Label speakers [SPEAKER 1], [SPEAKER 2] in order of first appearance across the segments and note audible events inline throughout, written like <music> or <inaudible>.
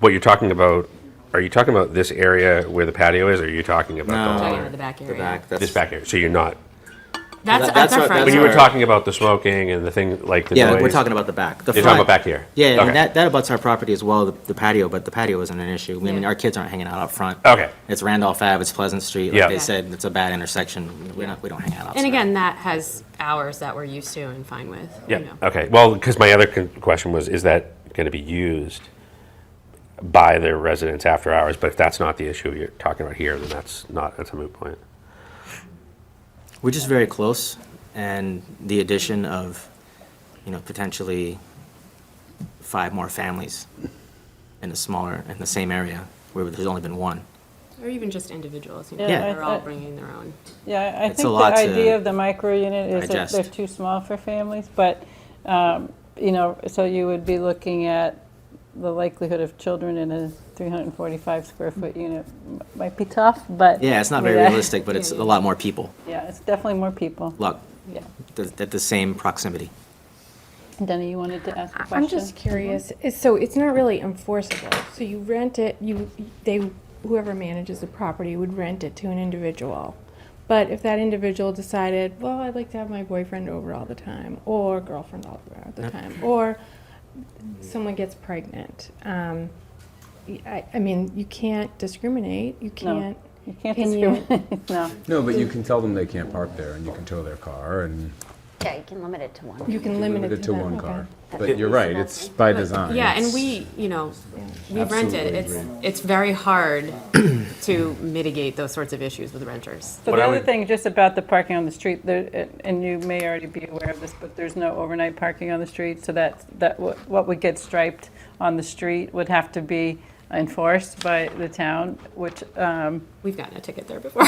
[SPEAKER 1] what you're talking about, are you talking about this area where the patio is, or are you talking about the
[SPEAKER 2] No.
[SPEAKER 1] whole
[SPEAKER 2] Talking
[SPEAKER 1] area?
[SPEAKER 2] about
[SPEAKER 3] the back
[SPEAKER 2] The
[SPEAKER 3] area.
[SPEAKER 2] back, that's.
[SPEAKER 1] This back area, so you're not,
[SPEAKER 3] That's,
[SPEAKER 2] That-
[SPEAKER 3] that's
[SPEAKER 2] that's
[SPEAKER 3] our
[SPEAKER 2] what-
[SPEAKER 3] front
[SPEAKER 2] that's
[SPEAKER 1] when you were
[SPEAKER 2] Sorry.
[SPEAKER 3] yard.
[SPEAKER 1] talking about the smoking and the thing, like the
[SPEAKER 2] Yeah, we're
[SPEAKER 1] noise,
[SPEAKER 2] talking about the back. The
[SPEAKER 1] You're talking
[SPEAKER 2] front-
[SPEAKER 1] about back here?
[SPEAKER 2] Yeah, I mean,
[SPEAKER 1] Okay.
[SPEAKER 2] that, that abuts our property as well, the the patio, but the patio isn't an issue. I mean,
[SPEAKER 3] Yeah.
[SPEAKER 2] our kids aren't hanging out up front.
[SPEAKER 1] Okay.
[SPEAKER 2] It's Randolph Ave, it's Pleasant Street.
[SPEAKER 1] Yeah.
[SPEAKER 2] Like they said, it's a bad intersection. We're not, we don't hang out outside.
[SPEAKER 3] And again, that has hours that we're used to and fine with. you
[SPEAKER 1] Yeah,
[SPEAKER 3] know.
[SPEAKER 1] okay, well, because my other con- question was, is that going to be used by their residents after hours? But if that's not the issue you're talking about here, then that's not, that's a moot point.
[SPEAKER 2] We're just very close, and the addition of, you know, potentially five more families in a smaller, in the same area, where there's only been one.
[SPEAKER 3] Or even just individuals, you know,
[SPEAKER 2] Yeah.
[SPEAKER 3] they're all
[SPEAKER 4] Yeah.
[SPEAKER 3] bringing their own.
[SPEAKER 4] Yeah, I- I
[SPEAKER 2] It's a
[SPEAKER 4] think the
[SPEAKER 2] lot to
[SPEAKER 4] idea of the micro unit is that they're
[SPEAKER 2] digest.
[SPEAKER 4] too small for families, but, um, you know, so you would be looking at the likelihood of children in a 345 square foot unit m- might be tough, but.
[SPEAKER 2] Yeah, it's not very
[SPEAKER 4] <laughs> Yeah.
[SPEAKER 2] realistic, but it's a lot more people,
[SPEAKER 4] Yeah, it's definitely more people.
[SPEAKER 2] lot,
[SPEAKER 4] Yeah.
[SPEAKER 2] th- at the same proximity.
[SPEAKER 4] Denny, you wanted to ask a question?
[SPEAKER 5] I'm just curious, is- so it's not really enforceable, so you rent it, you, they, whoever manages the property would rent it to an individual. But if that individual decided, well, I'd like to have my boyfriend over all the time, or girlfriend all all the time, or someone gets pregnant, um, y- I, I mean, you can't discriminate, you can't.
[SPEAKER 4] You can't
[SPEAKER 5] Can you-
[SPEAKER 4] discriminate, no.
[SPEAKER 6] No, but you can tell them they can't park there, and you can tow their car, and
[SPEAKER 7] Yeah, you can limit it to one.
[SPEAKER 5] You can limit it to them,
[SPEAKER 6] one
[SPEAKER 5] okay.
[SPEAKER 6] car. But you're right, it's by design.
[SPEAKER 3] Yeah, and
[SPEAKER 6] It's-
[SPEAKER 3] we, you know, we rent it.
[SPEAKER 6] Absolutely
[SPEAKER 3] It's,
[SPEAKER 6] agree.
[SPEAKER 3] it's very hard <clears throat> to mitigate those sorts of issues with renters.
[SPEAKER 4] So
[SPEAKER 1] What
[SPEAKER 4] the
[SPEAKER 1] I
[SPEAKER 4] other
[SPEAKER 1] would-
[SPEAKER 4] thing, just about the parking on the street, there- and- and you may already be aware of this, but there's no overnight parking on the street, so that, that what what would get striped on the street would have to be enforced by the town, which, um,
[SPEAKER 3] We've gotten a ticket
[SPEAKER 2] <laughs>
[SPEAKER 3] there before.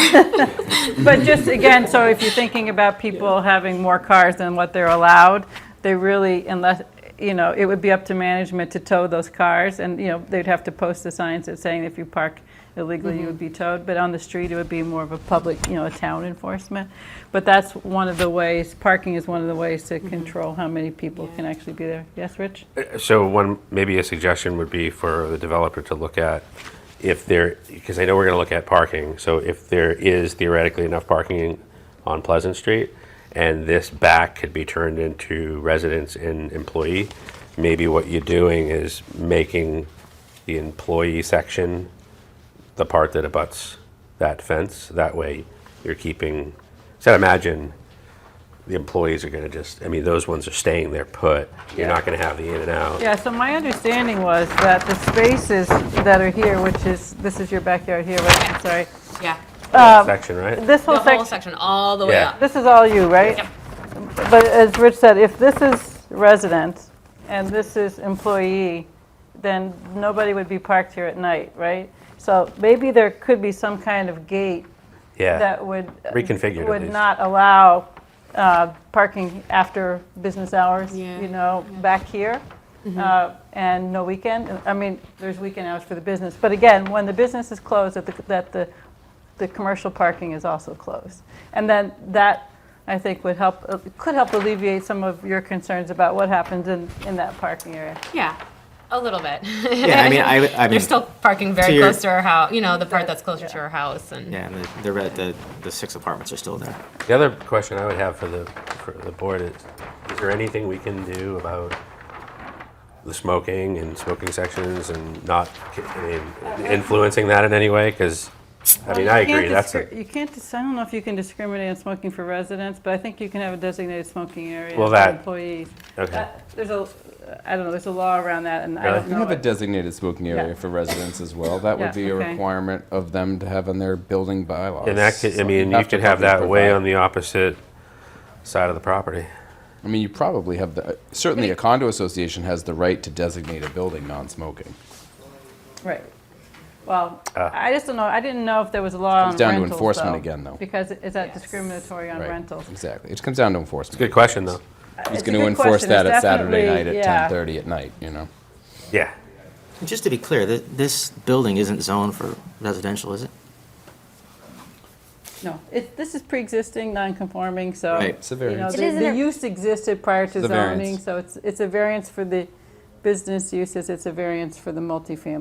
[SPEAKER 4] but just again, so if you're thinking about people having more cars than what they're allowed, they really, unless, you know, it would be up to management to tow those cars, and, you know, they'd have to post the signs that saying if you park illegally, you would be towed, but on the street, it would be more of a public, you know, a town enforcement. But that's one of the ways, parking is one of the ways to control how many people can actually be there. Yes, Rich?
[SPEAKER 1] So one, maybe a suggestion would be for the developer to look at if there, because I know we're going to look at parking, so if there is theoretically enough parking on Pleasant Street, and this back could be turned into residence and employee, maybe what you're doing is making the employee section the part that abuts that fence. That way, you're keeping, so I'd imagine the employees are going to just, I mean, those ones are staying there put. You're not going to have the in and out.
[SPEAKER 4] Yeah, so my understanding was that the spaces that are here, which is, this is your backyard here, right? I'm sorry.
[SPEAKER 3] Yeah,
[SPEAKER 4] Um,
[SPEAKER 1] section, right?
[SPEAKER 4] This
[SPEAKER 3] the
[SPEAKER 4] whole
[SPEAKER 3] whole
[SPEAKER 4] section.
[SPEAKER 3] section, all the way
[SPEAKER 1] Yeah.
[SPEAKER 3] up.
[SPEAKER 4] This is all you, right? But as Rich said, if this is resident and this is employee, then nobody would be parked here at night, right? So maybe there could be some kind of gate
[SPEAKER 1] Yeah.
[SPEAKER 4] that would. uh,
[SPEAKER 1] Reconfigured at
[SPEAKER 4] Would
[SPEAKER 1] least.
[SPEAKER 4] not allow uh, parking after business hours,
[SPEAKER 3] Yeah, Mm-hmm.
[SPEAKER 4] you know, back here. uh, And no weekend, I mean, there's weekend hours for the business. But again, when the business is closed, that the, that the, the commercial parking is also closed. And then that, I think, would help, uh, could help alleviate some of your concerns about what happens in, in that parking area.
[SPEAKER 3] Yeah, a little bit.
[SPEAKER 2] Yeah, I mean, I, I mean.
[SPEAKER 3] <laughs> They're still parking
[SPEAKER 2] to
[SPEAKER 3] very
[SPEAKER 2] your-
[SPEAKER 3] close to our house, you know, the part that's closer to our house and.
[SPEAKER 2] Yeah, and the, the, re- the, the six apartments are still there.
[SPEAKER 1] The other question I would have for the, for the board is, is there anything we can do about the smoking and smoking sections and not, I mean, influencing that in any way? Because, I mean, I
[SPEAKER 4] You can't
[SPEAKER 1] agree, that's,
[SPEAKER 4] discri-
[SPEAKER 1] a-
[SPEAKER 4] You can't, dis- I don't know if you can discriminate on smoking for residents, but I think you can have a designated smoking area
[SPEAKER 1] Well,
[SPEAKER 4] for
[SPEAKER 1] that-
[SPEAKER 4] employees.
[SPEAKER 1] okay.
[SPEAKER 4] Uh, There's a, I don't know, there's a law around that, and I
[SPEAKER 1] Really?
[SPEAKER 4] don't
[SPEAKER 6] You
[SPEAKER 4] know.
[SPEAKER 6] have a
[SPEAKER 4] it.
[SPEAKER 6] designated smoking
[SPEAKER 4] Yeah.
[SPEAKER 6] area for residents as well. That
[SPEAKER 4] Yeah,
[SPEAKER 6] would be a
[SPEAKER 4] okay.
[SPEAKER 6] requirement of them to have in their building bylaws.
[SPEAKER 1] And that could, I
[SPEAKER 6] So
[SPEAKER 1] mean, you
[SPEAKER 6] have to
[SPEAKER 1] could have
[SPEAKER 6] probably
[SPEAKER 1] that way
[SPEAKER 6] provide-
[SPEAKER 1] on the opposite side of the property.
[SPEAKER 6] I mean, you probably have the, certainly a condo association has the right to designate a building non-smoking.
[SPEAKER 4] Right. Well, I just don't know, I didn't know if there was a law on
[SPEAKER 6] Comes Ah. down to
[SPEAKER 4] rentals,
[SPEAKER 6] enforcement
[SPEAKER 4] though,
[SPEAKER 6] again, though.
[SPEAKER 4] Because is that discriminatory on
[SPEAKER 6] Right.
[SPEAKER 4] rentals?
[SPEAKER 6] Exactly. It comes down to enforcement.
[SPEAKER 1] Good question, though.
[SPEAKER 6] He's
[SPEAKER 4] It's a
[SPEAKER 6] going to
[SPEAKER 4] good
[SPEAKER 6] enforce
[SPEAKER 4] question.
[SPEAKER 6] that
[SPEAKER 4] It's
[SPEAKER 6] at Saturday
[SPEAKER 4] definitely-
[SPEAKER 6] night at
[SPEAKER 4] yeah.
[SPEAKER 6] 10:30 at night, you know?
[SPEAKER 1] Yeah.
[SPEAKER 2] And Just to be clear, th- this building isn't zoned for residential, is it?
[SPEAKER 4] No, it, this is pre-existing, non-conforming, so.
[SPEAKER 2] Right, it's
[SPEAKER 6] a
[SPEAKER 4] you know,
[SPEAKER 6] variance.
[SPEAKER 4] the-
[SPEAKER 7] It isn't
[SPEAKER 4] The
[SPEAKER 7] a-
[SPEAKER 4] use existed prior to
[SPEAKER 6] It's a variance.
[SPEAKER 4] zoning, so it's, it's a variance for the business uses, it's a variance for the multifamily